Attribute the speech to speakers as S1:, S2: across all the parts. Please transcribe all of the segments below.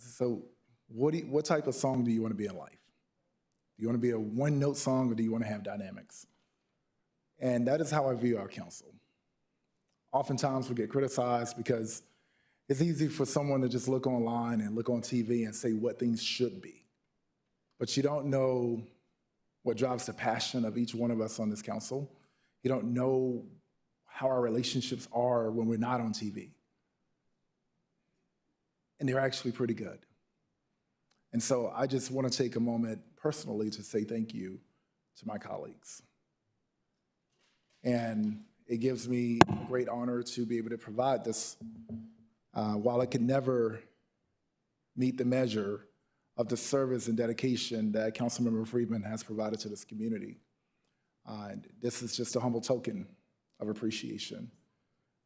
S1: So what, do you- what type of song do you want to be in life? Do you want to be a one-note song or do you want to have dynamics? And that is how I view our council. Oftentimes, we get criticized because it's easy for someone to just look online and look on TV and say what things should be. But you don't know what drives the passion of each one of us on this council. You don't know how our relationships are when we're not on TV. And they're actually pretty good. And so I just want to take a moment personally to say thank you to my colleagues. And it gives me a great honor to be able to provide this. Uh, while I could never meet the measure of the service and dedication that Councilmember Friedman has provided to this community, uh, and this is just a humble token of appreciation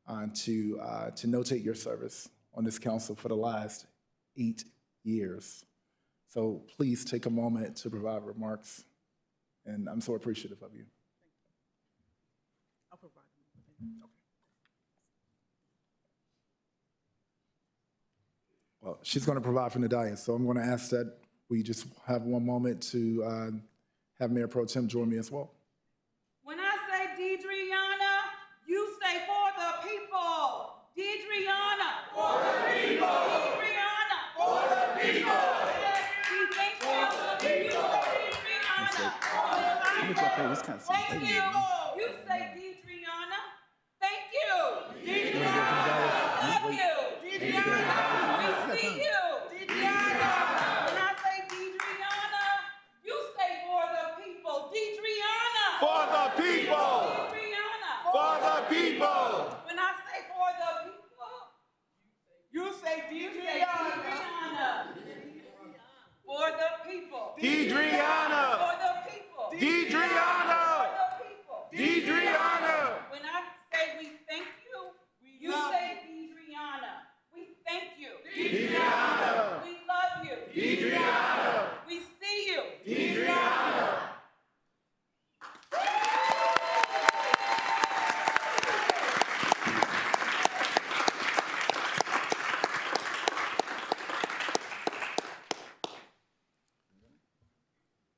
S1: uh, to, uh, to notate your service on this council for the last eight years. So please take a moment to provide remarks, and I'm so appreciative of you.
S2: I'll provide them.
S1: Well, she's going to provide from the dais, so I'm going to ask that we just have one moment to uh, have Mayor Pro Tem join me as well.
S3: When I say Deidreana, you say for the people. Deidreana. For the people. Deidreana. For the people. We thank you. You say Deidreana.
S4: kind of
S3: Thank you. You say Deidreana. Thank you. Love you. Deidreana. We see you. Deidreana. When I say Deidreana, you say for the people. Deidreana.
S4: For the people!
S3: Deidreana.
S4: For the people!
S3: When I say for the people, you say Deidreana. For the people.
S4: Deidreana!
S3: For the people. For
S4: Deidreana!
S3: the people.
S4: Deidreana!
S3: When I say we thank you, you say Deidreana. We thank you. Deidreana. We love you. Deidreana. We see you.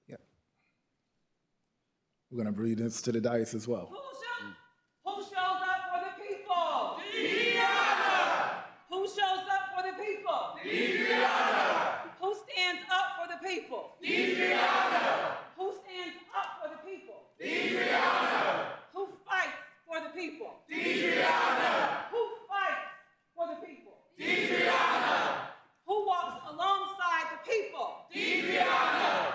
S1: Yeah. We're going to breathe this to the dais as well.
S3: Who shows, who shows up for the people? Deidreana. Who shows up for the people? Deidreana. Who stands up for the people? Deidreana. Who stands up for the people? Deidreana. Who fights for the people? Deidreana. Who fights for the people? Deidreana. Who walks alongside the people? Deidreana.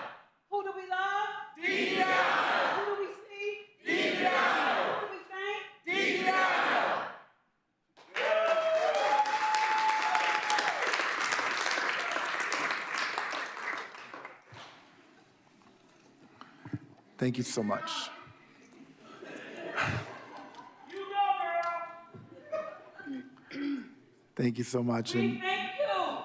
S3: Who do we love? Deidreana. Who do we see? Who do we thank?
S1: Thank you so much.
S3: You go, girl.
S1: Thank you so much.
S3: We
S1: And
S3: thank you.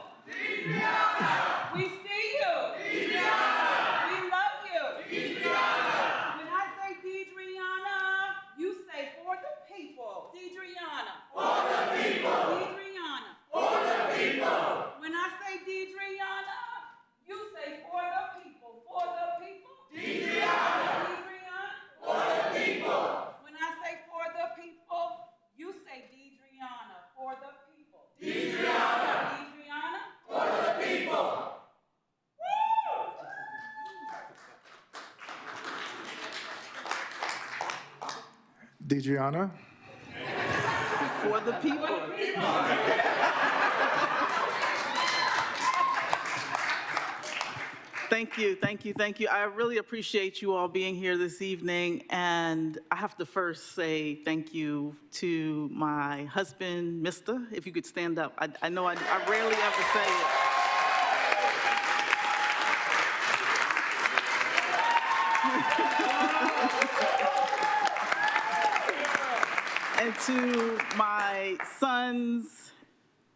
S3: We see you. We love you. When I say Deidreana, you say for the people. Deidreana. For the people. Deidreana. For the people. When I say Deidreana, you say for the people. For the people. Deidreana. Deidreana. For the people. When I say for the people, you say Deidreana. For the people. Adriana? For the people. Woo!
S1: Deidreana,
S2: For the people. Thank you, thank you, thank you. I really appreciate you all being here this evening, and I have to first say thank you to my husband, Mister, if you could stand up. I I know I I rarely ever say it. And to my sons,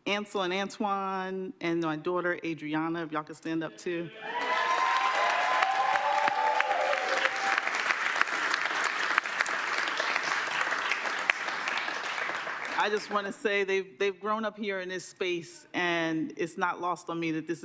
S2: Ansel and Antoine, and my daughter Adriana, if y'all could stand up too. I just want to say they've, they've grown up here in this space, and it's not lost on me that this